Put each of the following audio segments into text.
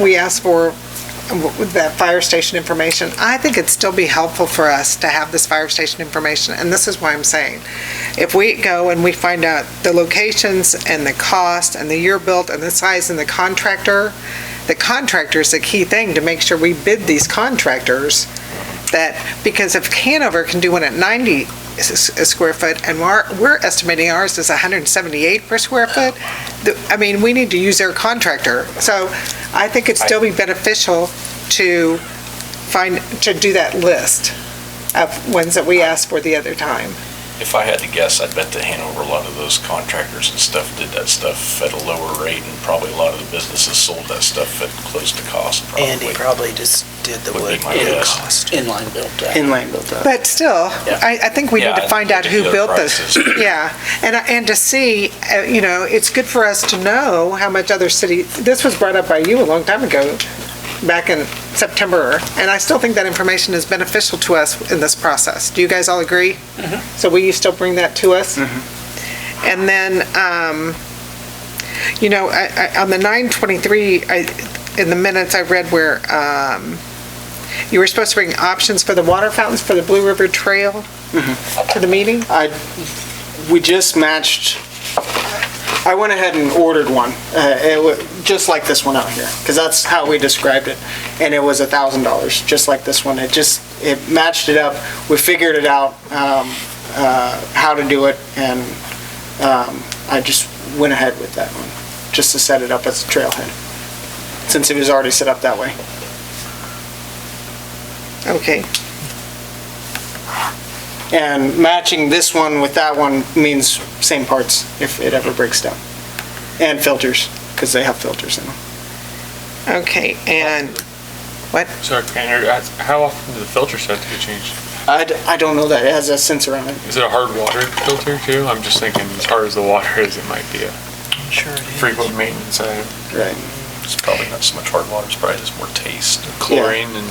we asked for with that fire station information, I think it'd still be helpful for us to have this fire station information, and this is why I'm saying. If we go and we find out the locations and the cost and the year built and the size and the contractor, the contractor's the key thing to make sure we bid these contractors that, because if Hanover can do one at 90 s- s- square foot and we're, we're estimating ours is 178 per square foot, the- I mean, we need to use their contractor. So I think it'd still be beneficial to find, to do that list of ones that we asked for the other time. If I had to guess, I bet that Hanover, a lot of those contractors and stuff did that stuff at a lower rate, and probably a lot of the businesses sold that stuff at close to cost, probably. Andy probably just did the Would wood be my guess. cost. Inline built up. Inline built up. But still, I, I think we need Yeah, to I find think out we who need to built know the this. prices. Yeah, and, and to see, uh, you know, it's good for us to know how much other city, this was brought up by you a long time ago, back in September, and I still think that information is beneficial to us in this process. Do you guys all agree? So will you still bring that to us? And then, um, you know, I, I, on the nine twenty-three, I, in the minutes I read where, um, you were supposed to bring options for the water fountains for the Blue River Trail to the meeting? We just matched, I went ahead and ordered one, uh, it wa- just like this one out here, because that's how we described it. And it was a thousand dollars, just like this one. It just, it matched it up. We figured it out, um, uh, how to do it, and, um, I just went ahead with that one, just to set it up as a trailhead, since it was already set up that way. Okay, And matching this one with that one means same parts if it ever breaks down. And filters, because they have filters in them. okay, and, Sorry, can I interrupt? how often do the filters have to be changed? I, d- I don't know that, it has a sensor on it. Is it a hard water filter too? I'm just thinking, as hard as the water is, it might be a Sure it is. frequent maintenance uh, item. Right. It's probably not so much hard water, it's probably just more taste. Chlorine and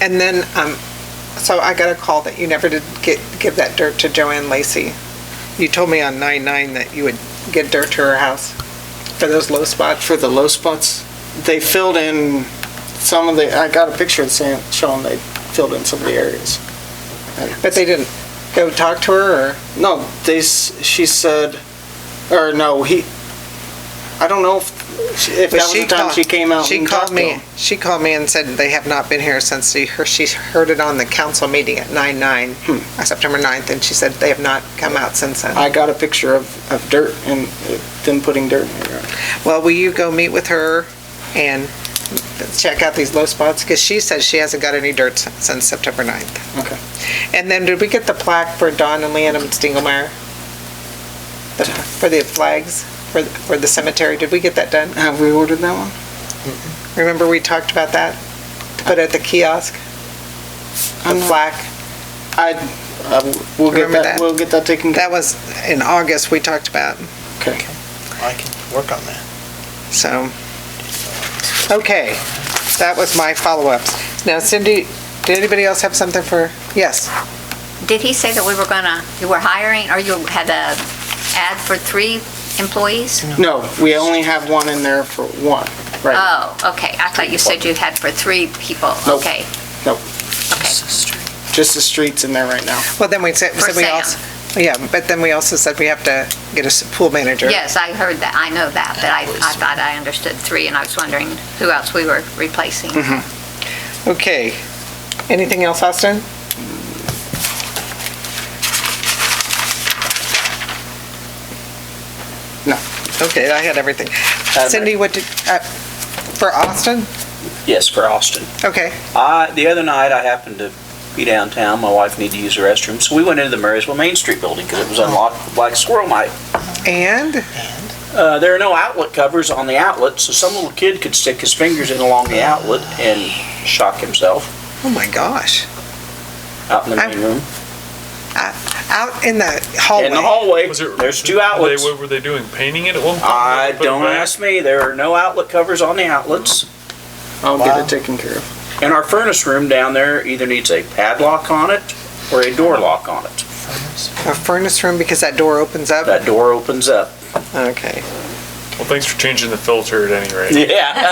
and then, um, so I got a call that you never did get, give that dirt to Joanne Lacy. You told me on nine-nine that you would get dirt to her house for those low spots. For the low spots, they filled in some of the, I got a picture of Sam, showing they filled in some of the areas. But they didn't go talk to her, or, No, they, s- she said, or no, he, I don't know if, if that but was she the time called. she came out She and talked called to him. me, she called me and said they have not been here since she, her, she heard it on the council meeting at nine-nine, uh, September 9th, and she said they have not come out since then. Hmm. I got a picture of, of dirt and uh, them putting dirt in the yard. Well, will you go meet with her and check out these low spots? Because she says she hasn't got any dirt s- since September 9th. Okay. And then did we get the plaque for Don and Leanne Stingelmeyer? The- For the flags, for, th- for the cemetery, did we get that done? Have we ordered that one? Remember we talked about that? To put at the kiosk, the I'm not- plaque? I, I- Uh, we'll get Remember that, that? we'll get that taken care That was in August we talked about, Okay. I can work on that. so. Okay, that was my follow-ups. Now Cindy, did anybody else have something for, yes? Did he say that we were gonna, you were hiring, or you had a ad for three employees? No, we only have one in there for one, right? Oh, okay, I thought you said you had for three people, Nope. okay. Nope. Okay, Just the streets in there right now. Well, then we said, For said we Sam. also, yeah, but then we also said we have to get a s- pool manager. yes, I heard that, I know that, but I, I thought I understood three, and I was wondering who else we were replacing. Okay. Anything else, Austin? No. Okay, I had everything. Cindy, what did, uh, for Austin? Yes, for Austin. Okay, I, the other night, I happened to be downtown, my wife needed to use the restroom, so we went into the Marysville Main Street building because it was unlocked with black squirrel mite. and, Uh, there are no outlet covers on the outlet, so some little kid could stick his fingers in along the outlet and shock himself oh my gosh, out in the I- main room. out in the In the hallway. hallway, Was it- there's were two they- outlets. What were they doing, painting it at one point? I, Put it don't back? ask me, there are no outlet covers on the outlets. I'll get it taken care of. And our furnace room down there either needs a padlock on it or a door lock on it. A furnace room because that door opens up? That door opens up. Okay. Well, thanks for changing the filter at any rate. Yeah.